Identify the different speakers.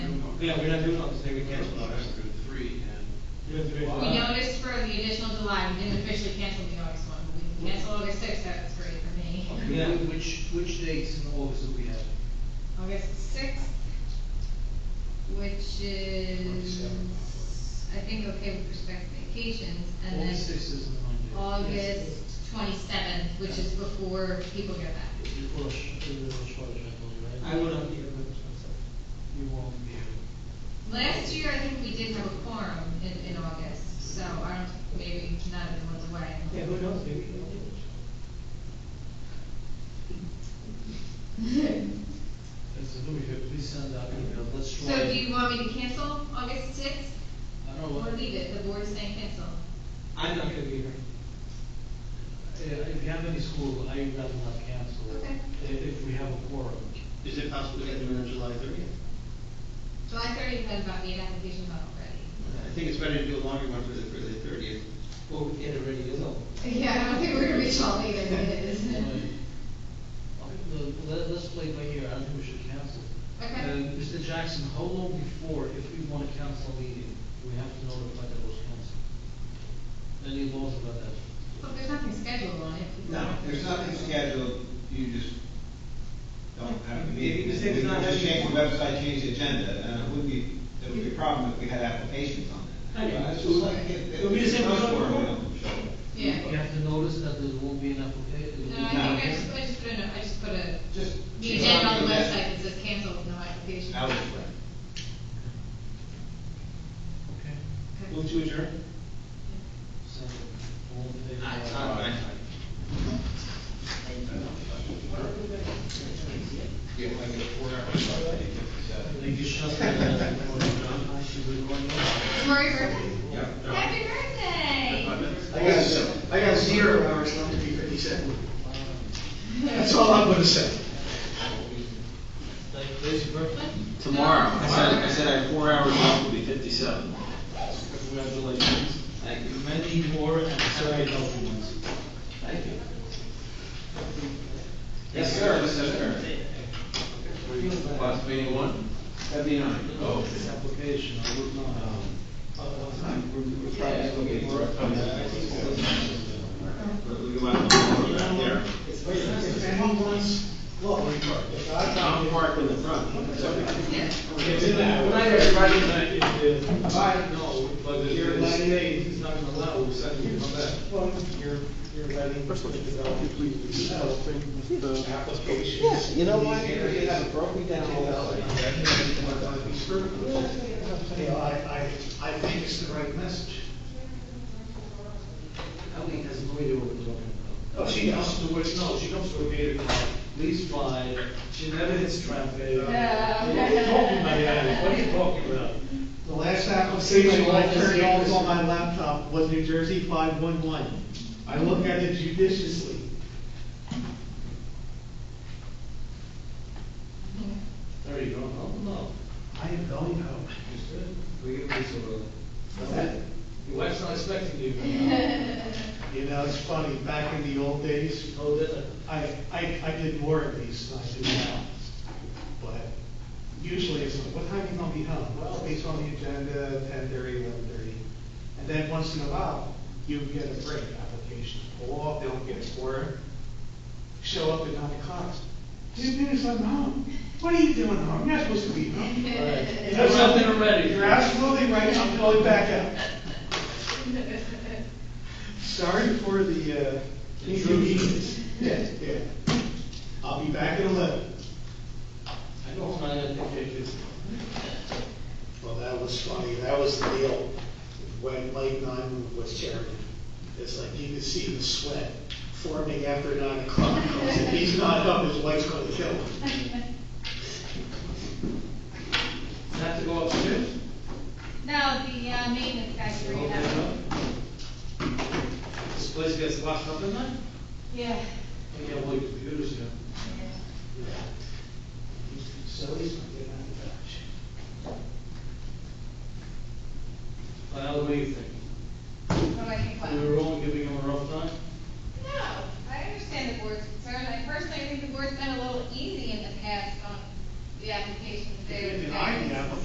Speaker 1: Yeah, we're not doing it on the same weekend.
Speaker 2: First, I'll have to do three,
Speaker 1: You have to make-
Speaker 2: Wow.
Speaker 3: We noticed for the additional July, we didn't officially cancel the August one, but we can cancel August sixth, that's great for me.
Speaker 1: Yeah.
Speaker 4: Okay, wh- which, which dates in August do we have?
Speaker 3: August sixth, which is, I think, okay with respect to vacations, and
Speaker 4: August
Speaker 3: then
Speaker 4: sixth is a Monday.
Speaker 3: August twenty-seventh, which is before people get back.
Speaker 4: Yes. Well, sh- uh, short, I believe, right?
Speaker 1: I will not be here for this one, so.
Speaker 4: You won't be here.
Speaker 3: Last year, I think we did have a quorum in, in August, so I don't, maybe none of them was away.
Speaker 1: Yeah, who knows, maybe we will do it.
Speaker 4: As a new year, please send out email, let's try.
Speaker 3: So do you want me to cancel August sixth,
Speaker 4: I don't
Speaker 3: or
Speaker 4: want,
Speaker 3: leave it, the board is saying cancel?
Speaker 1: I'm not gonna be here.
Speaker 4: Yeah, if you have any school, I would rather not cancel.
Speaker 3: Okay.
Speaker 4: If, if we have a quorum.
Speaker 2: Is it possible to get them in on July thirtieth?
Speaker 3: July thirtieth, I've got me an application out already.
Speaker 2: I think it's better to do a longer one for the, for the thirtieth.
Speaker 1: Well, we can't already, is all.
Speaker 3: Yeah, I don't think we're gonna reach all either, but it is.
Speaker 4: Like, okay, well, Let, let's play by ear, I don't think we should cancel.
Speaker 3: Okay.
Speaker 4: Uh, Mr. Jackson, how long before, if we want to cancel a meeting, we have to notify that it was canceled? Any laws about that?
Speaker 3: But there's nothing scheduled on it.
Speaker 5: No, there's nothing scheduled, you just don't have a meeting.
Speaker 1: You just say there's not-
Speaker 5: We just change the website, change the agenda, and it would be, it would be a problem if we had applications on
Speaker 1: I
Speaker 5: it.
Speaker 1: know.
Speaker 5: It's just like, it-
Speaker 1: So we just say
Speaker 5: it's
Speaker 1: we're
Speaker 5: not
Speaker 1: not-
Speaker 5: sure we don't show up.
Speaker 4: You
Speaker 3: Yeah.
Speaker 4: have to notice that there won't be an application.
Speaker 3: No, I think I just, I just put a, I just put a,
Speaker 5: Just.
Speaker 3: the agenda on the website that says cancel with no application.
Speaker 5: Out of
Speaker 3: Okay.
Speaker 5: it.
Speaker 4: Okay.
Speaker 1: Move to adjourn?
Speaker 4: So, all in favor?
Speaker 2: Yeah, like a four-hour.
Speaker 4: Thank you, Shasta, for your time. I should be going now.
Speaker 3: Murray Griffin?
Speaker 2: Yeah.
Speaker 3: Happy birthday!
Speaker 6: I got, I got zero hours left to be fifty-seven. That's all I'm gonna say.
Speaker 4: Like, today's your birthday?
Speaker 7: Tomorrow, I said, I said I have four hours left, will be fifty-seven.
Speaker 4: Congratulations.
Speaker 7: Thank you.
Speaker 4: Many more and very healthy ones.
Speaker 7: Thank you.
Speaker 5: Yes, sir, yes, sir.
Speaker 7: Class meeting one?
Speaker 5: Seventy-nine.
Speaker 7: Oh.
Speaker 4: This application, I would not, um,
Speaker 5: We're probably still getting more. But we go out and back there. I'm parked in the front.
Speaker 3: Yeah.
Speaker 6: But you're letting, it's not gonna allow, so I can come back. You're, you're letting. Yes,
Speaker 5: You know what? You have broke me down all that way.
Speaker 6: You know, I, I, I think it's the right message.
Speaker 4: Ellie has no idea what we're talking about.
Speaker 6: Oh, she comes to work, no, she comes to work eight o'clock.
Speaker 4: Please fly, she never hits traffic.
Speaker 6: Uh,
Speaker 4: What
Speaker 3: Yeah.
Speaker 4: are you talking about, Ellie? What are you talking about?
Speaker 6: The last application
Speaker 4: Same
Speaker 6: I
Speaker 4: as
Speaker 6: turned
Speaker 4: yours.
Speaker 6: off on my laptop was New Jersey five-one-one. I looked at it judiciously.
Speaker 4: There you go, Oh, home now.
Speaker 6: I am going home.
Speaker 1: We get this over.
Speaker 4: Your wife's not expecting you.
Speaker 6: You know, it's funny, back in the old days,
Speaker 4: Oh, did it?
Speaker 6: I, I, I did more of these than I do now. But usually it's like, what time are you gonna be home? Well, it's on the agenda, ten thirty, eleven thirty. And then once in a while, you get a break, applications pull off, they don't get a quarter. Show up at nine o'clock. Two minutes, I'm home. What are you doing home? You're not supposed to be home.
Speaker 4: All right.
Speaker 6: You know
Speaker 4: Have something
Speaker 6: something?
Speaker 4: already.
Speaker 6: You're absolutely right, I'm going back out. Sorry for the, uh, inconvenience. Yeah, yeah. I'll be back at eleven.
Speaker 4: I don't find that picture.
Speaker 6: Well, that was funny, that was the deal when Mike Nyman was chairman. It's like you could see the sweat forming after nine o'clock. If he's not up, his wife's gonna kill him.
Speaker 4: Have to go upstairs?
Speaker 3: No, the, uh, maintenance guys were,
Speaker 4: Open it
Speaker 3: yeah.
Speaker 4: up. This place gets locked up in there?
Speaker 3: Yeah.
Speaker 4: You can't leave computers here.
Speaker 6: So he's not getting out of dodge.
Speaker 4: Well, what do you think?